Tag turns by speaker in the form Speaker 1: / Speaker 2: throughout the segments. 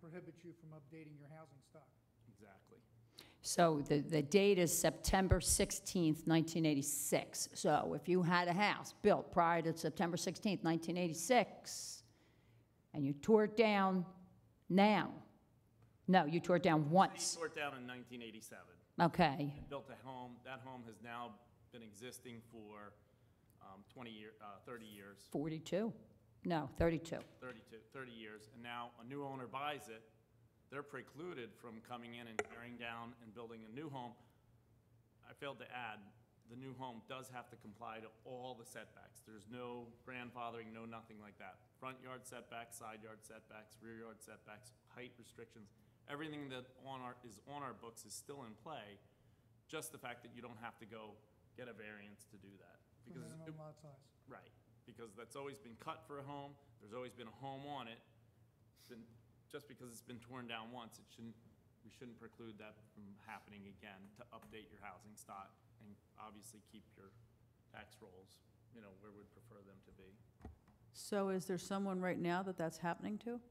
Speaker 1: prohibits you from updating your housing stock.
Speaker 2: Exactly.
Speaker 3: So the, the date is September 16th, 1986. So if you had a house built prior to September 16th, 1986, and you tore it down now, no, you tore it down once,
Speaker 2: Sort down in 1987,
Speaker 3: okay,
Speaker 2: built a home, that home has now been existing for um, 20 year, uh, 30 years,
Speaker 3: 42? No, 32.
Speaker 2: 32, 30 years, and now a new owner buys it, they're precluded from coming in and tearing down and building a new home. I failed to add, the new home does have to comply to all the setbacks. There's no grandfathering, no nothing like that. Front yard setbacks, side yard setbacks, rear yard setbacks, height restrictions, everything that on our, is on our books is still in play. Just the fact that you don't have to go get a variance to do that.
Speaker 1: for
Speaker 2: Because it-
Speaker 1: minimum lot size.
Speaker 2: Right, because that's always been cut for a home, there's always been a home on it. Then, just because it's been torn down once, it shouldn't, we shouldn't preclude that from happening again, to update your housing stock and obviously keep your tax rolls, you know, where we'd prefer them to be.
Speaker 4: So is there someone right now that that's happening to?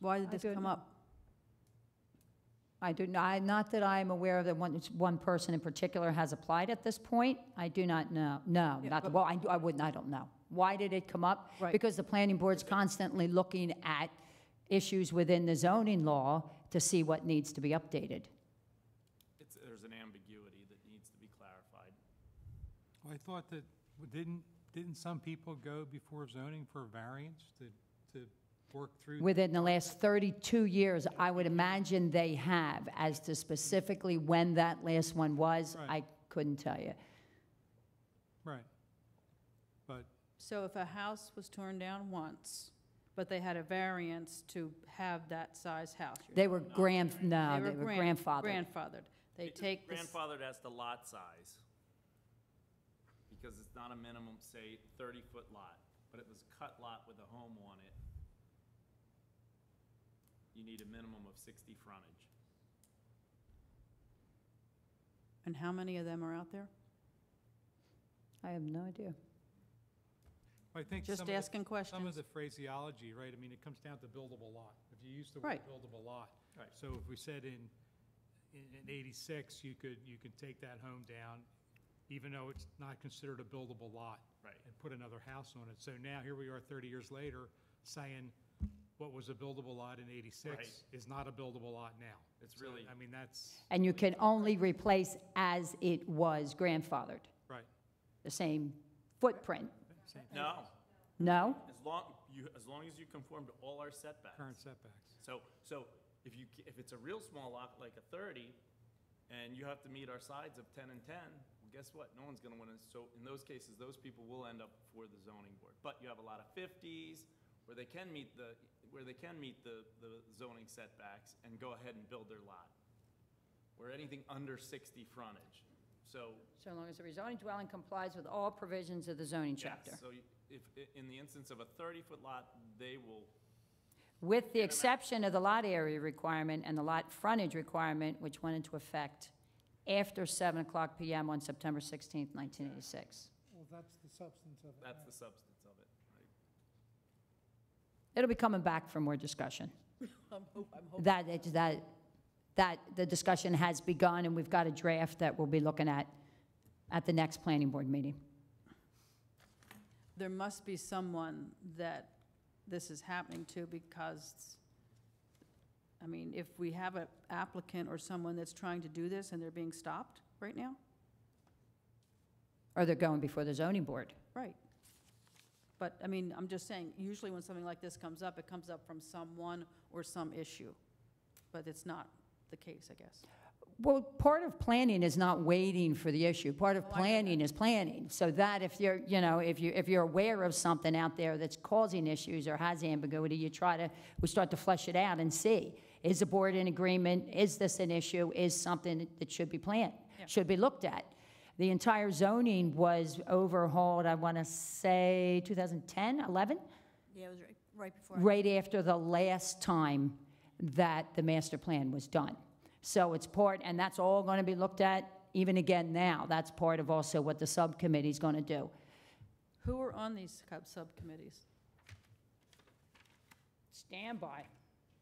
Speaker 4: Why
Speaker 3: I
Speaker 4: did this
Speaker 3: don't
Speaker 4: come
Speaker 3: know.
Speaker 4: up?
Speaker 3: I do not, not that I'm aware of that one, one person in particular has applied at this point. I do not know, no,
Speaker 4: Yeah,
Speaker 3: not, the-
Speaker 4: but-
Speaker 3: well, I, I wouldn't, I don't know. Why did it come up?
Speaker 4: Right.
Speaker 3: Because the planning board's constantly looking at issues within the zoning law to see what needs to be updated.
Speaker 2: It's, there's an ambiguity that needs to be clarified.
Speaker 5: Well, I thought that, w- didn't, didn't some people go before zoning for variance to, to work through?
Speaker 3: Within the last 32 years, I would imagine they have, as to specifically when that last one was,
Speaker 5: Right.
Speaker 3: I couldn't tell you.
Speaker 5: Right. But,
Speaker 4: So if a house was torn down once, but they had a variance to have that size house? you're-
Speaker 3: They were grand, no, they were
Speaker 4: gran-
Speaker 3: grandfathered.
Speaker 4: Grandfathered. They
Speaker 2: It-
Speaker 4: take this,
Speaker 2: Grandfathered as the lot size, because it's not a minimum, say, thirty-foot lot, but it was a cut lot with a home on it. You need a minimum of sixty frontage.
Speaker 4: and how many of them are out there?
Speaker 3: I have no idea.
Speaker 5: I think some of
Speaker 4: Just
Speaker 5: the-
Speaker 4: asking
Speaker 5: some of
Speaker 4: questions.
Speaker 5: the phraseology, right, I mean, it comes down to buildable lot. If you use the word
Speaker 4: Right.
Speaker 5: buildable lot.
Speaker 2: Right.
Speaker 5: So if we said in, in in eighty-six, you could, you could take that home down, even though it's not considered a buildable lot.
Speaker 2: Right.
Speaker 5: and put another house on it. So now, here we are 30 years later, saying what was a buildable lot in 86 is not a buildable lot now.
Speaker 2: It's
Speaker 5: So,
Speaker 2: really-
Speaker 5: I mean, that's,
Speaker 3: And you can only replace as it was grandfathered,
Speaker 5: right,
Speaker 3: the same footprint,
Speaker 5: same
Speaker 2: No,
Speaker 3: no?
Speaker 2: as long, you, as long as you conform to all our setbacks.
Speaker 5: current setbacks.
Speaker 2: So, so if you, ca- if it's a real small lot, like a thirty, and you have to meet our sides of ten and ten, well, guess what? No one's gonna win it. So in those cases, those people will end up for the zoning board. But you have a lot of fifties where they can meet the, where they can meet the, the zoning setbacks and go ahead and build their lot. Where anything under sixty frontage. So
Speaker 3: So long as the rezoning dwelling complies with all provisions of the zoning chapter.
Speaker 2: Yes, so you- if, i- in the instance of a 30-foot lot, they will,
Speaker 3: With the exception of the lot area requirement and the lot frontage requirement, which went into effect after 7 o'clock PM on September 16th, 1986.
Speaker 1: Well, that's the substance of it.
Speaker 2: that's
Speaker 1: now.
Speaker 2: the substance of it. right?
Speaker 3: It'll be coming back for more discussion.
Speaker 4: I'm hope- I'm hoping-
Speaker 3: That, it- that, that, the discussion has begun, and we've got a draft that we'll be looking at at the next planning board meeting.
Speaker 4: There must be someone that this is happening to because, I mean, if we have an applicant or someone that's trying to do this and they're being stopped right now,
Speaker 3: Or they're going before the zoning board.
Speaker 4: Right. But, I mean, I'm just saying, usually when something like this comes up, it comes up from someone or some issue. But it's not the case, I guess.
Speaker 3: Well, part of planning is not waiting for the issue. Part
Speaker 4: Oh,
Speaker 3: of
Speaker 4: I know
Speaker 3: planning is planning. So that if you're, you know, if you, if you're aware of something out there that's causing issues or has ambiguity, you try to, we start to flesh it out and see, is the board in agreement? Is this an issue? Is something that should be planned,
Speaker 4: Yeah.
Speaker 3: should be looked at? The entire zoning was overhauled, I want to say 2010, 11?
Speaker 6: Yeah, it was right, right before. I-
Speaker 3: right after the last time that the master plan was done. So it's part, and that's all going to be looked at even again now. That's part of also what the subcommittee's going to do.
Speaker 4: Who are on these sub- subcommittees?
Speaker 3: Standby.